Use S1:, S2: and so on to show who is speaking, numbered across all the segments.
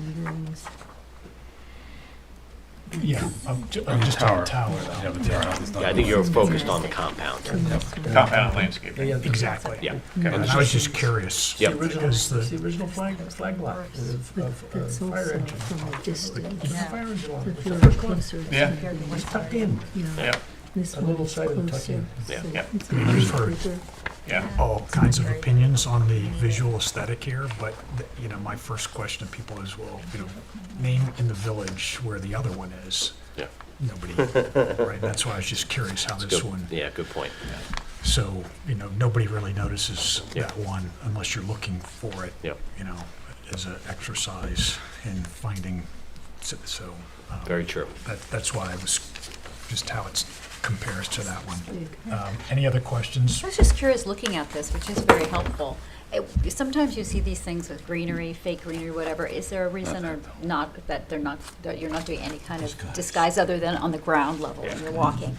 S1: buildings.
S2: Yeah, I'm ju- I'm just on the tower
S3: Yeah,
S2: though.
S3: but tower is not.
S4: Yeah, I think you're focused on the compound.
S5: Compound landscaping.
S2: Exactly.
S4: Yeah.
S2: Yeah,
S4: And
S2: and I was just curious.
S4: Yep.
S6: The original,
S2: Because the-
S6: it's the original flag, flag lot of,
S1: But
S6: of uh,
S1: that's
S6: fire
S1: also
S6: engine.
S1: from a distance,
S6: There's a fire engine on it,
S1: that
S6: it's the
S1: you're
S6: first one,
S1: closer to.
S5: Yeah.
S1: something,
S6: it's tucked in.
S1: you know,
S5: Yeah,
S1: This
S6: A
S1: one
S6: little
S1: is
S6: side of the tuck
S1: closer.
S6: in.
S4: Yeah.
S1: so
S5: Yeah.
S1: it's a
S2: I've
S1: little
S2: heard-
S1: bigger.
S5: yeah.
S2: all kinds of opinions on the visual aesthetic here, but, th- you know, my first question to people is, well, you know, name in the village where the other one is.
S4: Yeah.
S2: Nobody, right, that's why I was just curious how this
S4: Good-
S2: one,
S4: Yeah, good point.
S2: so, you know, nobody really notices
S4: Yeah.
S2: that one unless you're looking for it,
S4: Yep,
S2: you know, as an exercise in finding, so- so, um,
S4: very true.
S2: that, that's why I was, just how it compares to that one.
S1: Big.
S2: Um, Any other questions?
S7: I was just curious looking at this, which is very helpful. It- Sometimes you see these things with greenery, fake greenery, whatever. Is there a reason or not that they're not, that you're not doing any kind of disguise other than on the ground level when you're walking?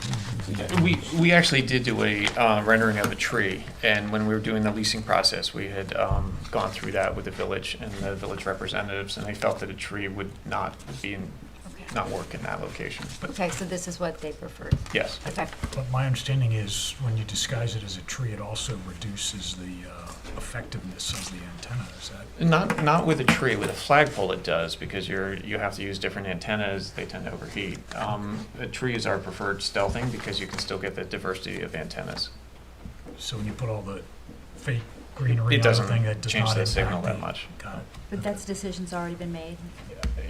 S5: We, we actually did do a uh, rendering of a tree, and when we were doing the leasing process, we had um, gone through that with the village and the village representatives, and they felt that a tree would not be, in-
S7: Okay.
S5: not work in that location, but
S7: Okay, so this is what they preferred.
S5: yes.
S7: Okay.
S2: But my understanding is, when you disguise it as a tree, it also reduces the uh, effectiveness of the antenna, is that?
S5: Not, not with a tree, with a flagpole it does, because you're, you have to use different antennas, they tend to overheat. Um, A tree is our preferred stealthing, because you can still get the diversity of antennas.
S2: So when you put all the fake greenery on the
S5: It doesn't
S2: thing, that does
S5: change
S2: not
S5: the signal
S2: impact
S5: that
S2: the-
S5: much.
S2: Got it,
S7: But that's, decision's already been made.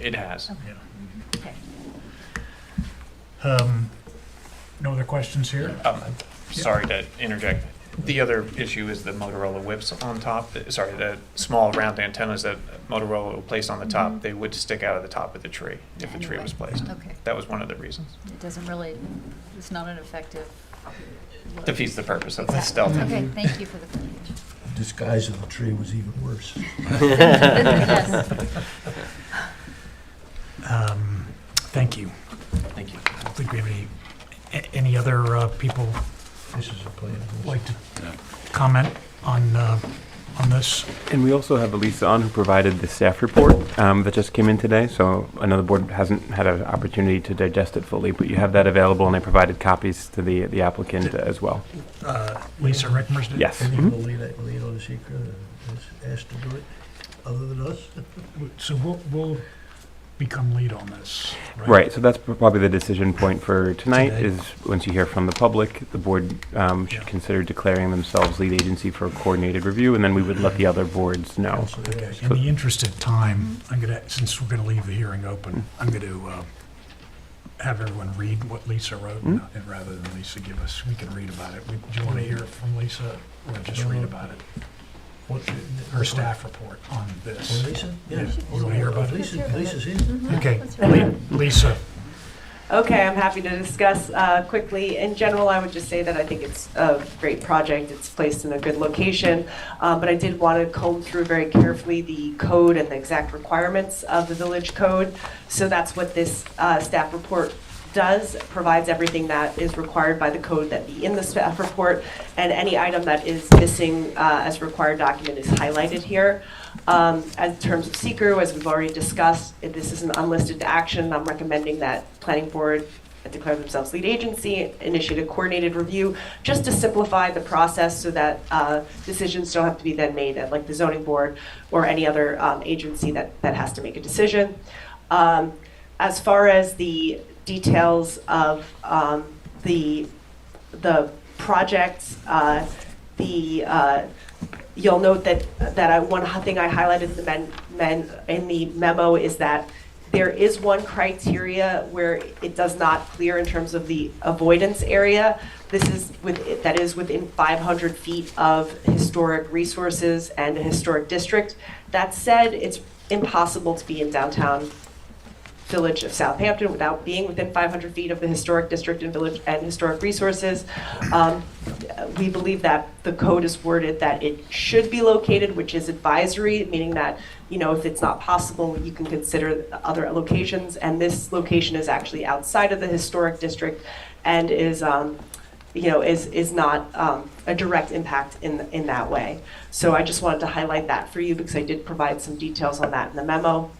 S5: It has.
S2: yeah.
S7: Okay.
S2: Um, No other questions here?
S5: Um, Sorry to interject. The other issue is the Motorola whips on top, sorry, the small round antennas that Motorola will place on the top, they would stick out of the top of the tree if a tree was placed.
S7: Mm-hmm. Okay.
S5: That was one of the reasons.
S7: It doesn't really, it's not an effective. look.
S5: Defeats the purpose of the
S7: Exactly.
S5: stealth.
S7: Okay, thank you for the clarification.
S6: Disguise of the tree was even worse.
S7: Yes.
S2: Um, Thank you.
S5: Thank you.
S2: I don't think we have any, a- any other uh, people
S6: This is a plan.
S2: like to comment on, uh, on this?
S8: And we also have Elisa on who provided the staff report um, that just came in today. So another board hasn't had an opportunity to digest it fully, but you have that available, and I provided copies to the the applicant as well.
S2: Uh, Lisa Rickmers did?
S8: Yes.
S6: Any of the lead, lead on the secret, is asked to do it, other than us?
S2: So we'll, we'll become lead on this, right?
S8: Right, so that's probably the decision point for tonight,
S2: Today.
S8: is once you hear from the public, the board um, should
S2: Yeah.
S8: consider declaring themselves lead agency for a coordinated review, and then we would let the other boards know.
S6: Also,
S2: Okay,
S6: yes.
S2: in the interest of time, I'm gonna, since we're gonna leave the hearing open, I'm gonna, uh, have everyone read what Lisa wrote, and and rather than Lisa give us, we can read about it. We- Do you wanna hear it from Lisa, or just read about it?
S6: What-
S2: Her staff report on this.
S6: Oh, Lisa? Yes.
S2: Yeah. You wanna hear about it?
S6: Lisa, Lisa's here.
S2: Okay, Le- Lisa,
S9: Okay, I'm happy to discuss uh, quickly. In general, I would just say that I think it's a great project. It's placed in a good location, Uh, but I did want to comb through very carefully the code and the exact requirements of the village code. So that's what this uh, staff report does, provides everything that is required by the code that be in the staff report, and any item that is missing uh, as required document is highlighted here. Um, As in terms of seeker, as we've already discussed, if this is an unlisted action. I'm recommending that planning board declare themselves lead agency, initiate a coordinated review, just to simplify the process so that uh, decisions don't have to be then made at like the zoning board or any other um, agency that, that has to make a decision. Um, As far as the details of um, the, the projects, uh, the, uh, you'll note that, that I, one thing I highlighted in the men, men, in the memo is that there is one criteria where it does not clear in terms of the avoidance area. This is with, that is within five hundred feet of historic resources and a historic district. That said, it's impossible to be in downtown Village of Southampton without being within 500 feet of the historic district and village and historic resources. Um, We believe that the code is worded that it should be located, which is advisory, meaning that, you know, if it's not possible, you can consider other locations. And this location is actually outside of the historic district and is, um, you know, is, is not um, a direct impact in, in that way. So I just wanted to highlight that for you because I did provide some details on that in the memo.